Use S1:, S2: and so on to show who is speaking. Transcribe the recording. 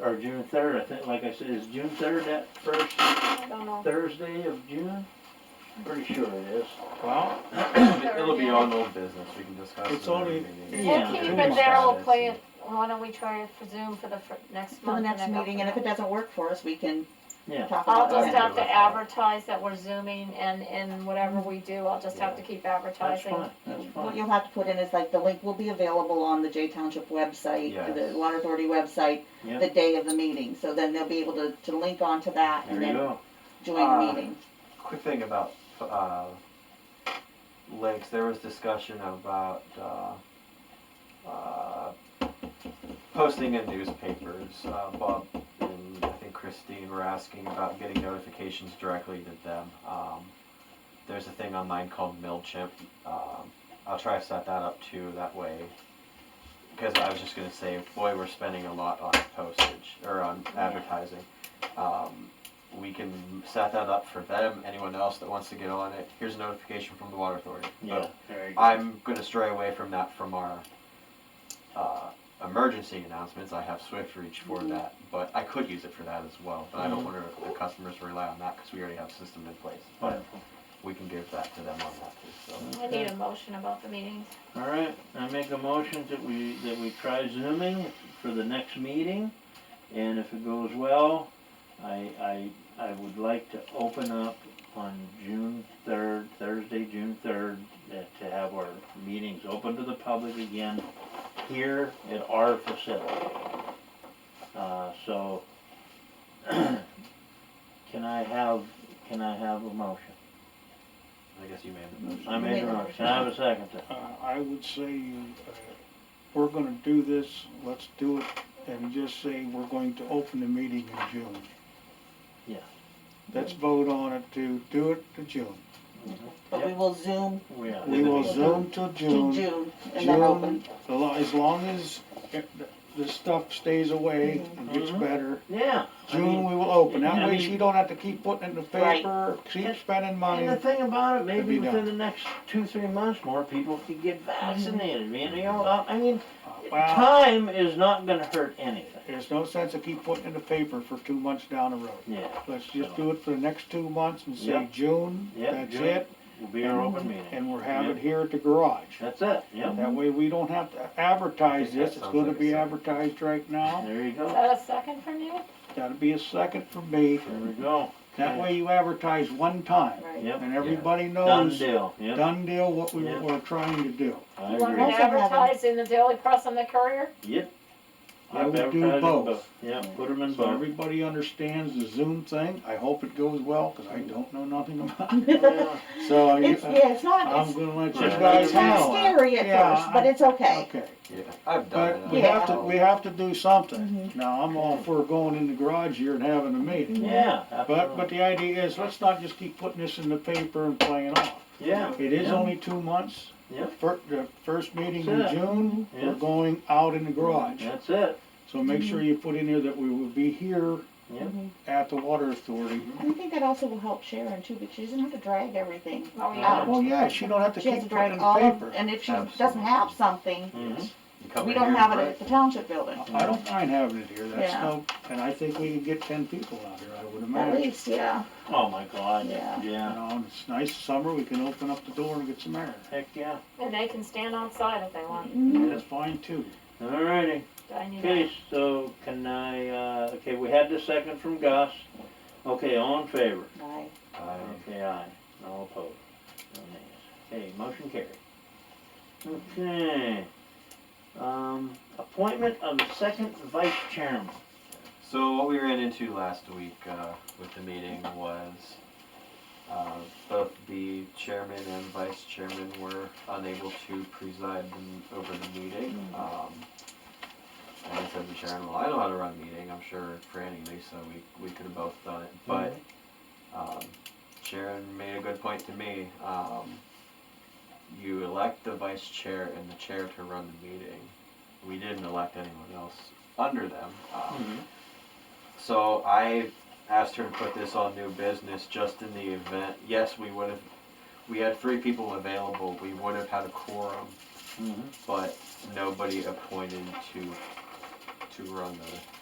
S1: or June third, I think, like I said, is June third that first
S2: Don't know.
S1: Thursday of June? Pretty sure it is.
S3: Well, it'll be on old business, we can discuss.
S4: It's
S3: it in the
S4: only-
S3: meeting.
S1: Yeah.
S2: We'll keep
S1: June
S2: it there, we'll
S3: Status
S2: play
S3: and-
S2: it, why don't we try it for Zoom for the fir- next
S5: For the
S2: month?
S5: next
S2: then go
S5: meeting, and if
S2: from
S5: it doesn't work for us, we can
S1: Yeah.
S5: talk
S2: there. I'll
S5: about
S2: just
S5: it.
S2: have to advertise that we're Zooming and, and whatever we do, I'll just have to keep
S1: That's
S2: advertising.
S1: fine, that's
S5: What
S1: fine.
S5: you'll have to put in is like, the link will be available on the Jay Township website,
S3: Yes.
S5: the Water Authority website,
S1: Yeah.
S5: the day of the meeting, so then they'll be able to, to link onto that
S1: There
S5: and
S1: you
S5: then
S1: go.
S5: join the
S3: Uh,
S5: meeting.
S3: Quick thing about, uh, links, there was discussion about, uh, uh, posting in newspapers. Uh, Bob and I think Christine were asking about getting notifications directly to them. Um, there's a thing online called MailChimp. Um, I'll try to set that up too, that way. Because I was just gonna say, boy, we're spending a lot on postage, or on advertising. Um, we can set that up for them, anyone else that wants to get on it. Here's a notification from the water authority.
S1: Yeah,
S3: But
S1: there you go.
S3: I'm gonna stray away from that from our, uh, emergency announcements. I have Swift Reach for that, but I could use it for that as well. But I don't want the customers to rely on that, because we already have a system in place. But
S1: Wonderful.
S3: we can give that to them on that too, so.
S2: I need a motion about the meetings.
S1: All right, I make a motion that we, that we try zooming for the next meeting, and if it goes well, I, I, I would like to open up on June third, Thursday, June third, to have our meetings open to the public again here at our facility. Uh, so, can I have, can I have a motion?
S3: I guess you made the motion.
S1: I made a motion, Can I have a second to
S4: Uh, I would say, uh, we're gonna do this, let's do it, and just say we're going to open the meeting in June.
S1: Yeah.
S4: Let's vote on it to do it to June.
S5: But we will Zoom
S1: We are.
S4: We will
S3: Yeah.
S4: zoom to
S5: to
S4: June.
S5: June and then open.
S4: the lo- As long as it- the stuff stays away and gets
S1: Mhm.
S4: better,
S1: Yeah. I mean-
S4: June we will open.
S1: I
S4: That way
S1: mean-
S4: she don't have to keep putting it in the
S5: Right.
S4: paper, keep
S1: And-
S4: spending
S1: And the
S4: money.
S1: thing about it,
S4: Could be
S1: maybe within
S4: done.
S1: the next two, three months, more people could get vaccinated, man, you know, I- I mean,
S4: Uh, Well,
S1: time is not gonna hurt anything.
S4: there's no sense to keep putting it in the paper for two months down the road.
S1: Yeah,
S4: Let's just do it for the next two months and say
S1: Yep.
S4: June,
S1: Yep,
S4: that's
S1: June.
S4: it,
S1: will be our open meeting,
S4: and we're having it here at the garage.
S1: that's it, yep,
S4: That way we don't have to
S3: I
S4: advertise
S3: think that
S4: this, it's
S3: sounds
S4: gonna
S3: like a
S4: be
S3: second.
S4: advertised right now.
S1: there you
S2: Is
S1: go,
S2: that a second from you?
S4: That'll be a second for me.
S1: there we go,
S4: That way you advertise one time,
S5: Right.
S1: yep,
S4: and everybody
S1: done
S4: knows,
S1: deal, yep,
S4: done deal, what we
S1: Yep.
S4: were trying to do.
S1: I
S2: You
S1: agree,
S2: want me to
S5: Also have a-
S2: advertise in the Daily Press and the Courier?
S1: yep.
S4: I would do
S1: Advertise them
S4: both.
S1: Yep, put them in
S4: So
S1: both.
S4: everybody understands the Zoom thing, I hope it goes well, cause I don't know nothing about it.
S1: Yeah.
S4: So I-
S5: It's, yeah, it's not,
S4: uh, I'm
S5: it's,
S4: gonna let you
S1: Right.
S4: guys
S5: it's kind of
S4: know.
S5: scary
S4: Yeah,
S5: at first, but
S4: I-
S5: it's okay.
S4: Okay.
S3: Yeah, I've done
S4: But
S3: it.
S4: we
S5: Yeah.
S4: have to, we have to do something. Now, I'm all for going in the garage here and having a meeting.
S1: Yeah,
S4: But, but
S1: absolutely,
S4: the idea is, let's not just keep putting this in the paper and playing off.
S1: yeah.
S4: It is
S1: yeah,
S4: only two months.
S1: Yep.
S4: Fir- the first meeting in
S1: That's it.
S4: June, we're
S1: Yeah.
S4: going out in the garage.
S1: That's it,
S4: So make sure you put in there that we will be here
S1: yep,
S4: at the water authority.
S5: And I think that also will help Sharon too, because she doesn't have to drag everything.
S2: Oh,
S1: Yeah.
S2: yeah.
S4: Well, yeah, she don't have to
S5: She has to
S4: keep putting in
S5: drag
S4: the
S5: all of,
S4: paper.
S5: and if she doesn't
S3: Absolutely.
S5: have something,
S1: mhm,
S3: You come
S5: we
S3: in
S5: don't
S3: here,
S5: have it
S3: right?
S5: at the township building,
S4: I don't mind having it here, that's
S5: Yeah.
S4: no, and I think we can get ten people out here, I would
S5: at
S4: imagine.
S5: least, yeah.
S1: oh my god,
S5: Yeah.
S4: You
S1: yeah,
S4: know, and it's nice summer, we can open up the door and get some air.
S1: heck, yeah,
S2: And they can stand outside if they want.
S4: That's fine too.
S1: alrighty.
S2: Do I need
S1: Okay,
S2: that?
S1: so can I, uh, okay, we had the second from Gus. Okay, all in favor?
S5: Right.
S3: Uh,
S1: Okay, aye. All opposed? No nays. Okay, motion carried. Okay. Um, appointment of the second vice chairman.
S3: So what we ran into last week uh, with the meeting was uh, both the chairman and vice chairman were unable to preside m- over the meeting. Um, and I said to Sharon, "Well, I know how to run a meeting. I'm sure Franny and Lisa, we we could have both done it." But um, Sharon made a good point to me. Um, you elect the vice chair and the chair to run the meeting. We didn't elect anyone else under them. Um,
S1: Mm-hmm.
S3: so I asked her to put this on new business just in the event. Yes, we would have. We had three people available. We would have had a quorum,
S1: Mhm.
S3: but nobody appointed to to run the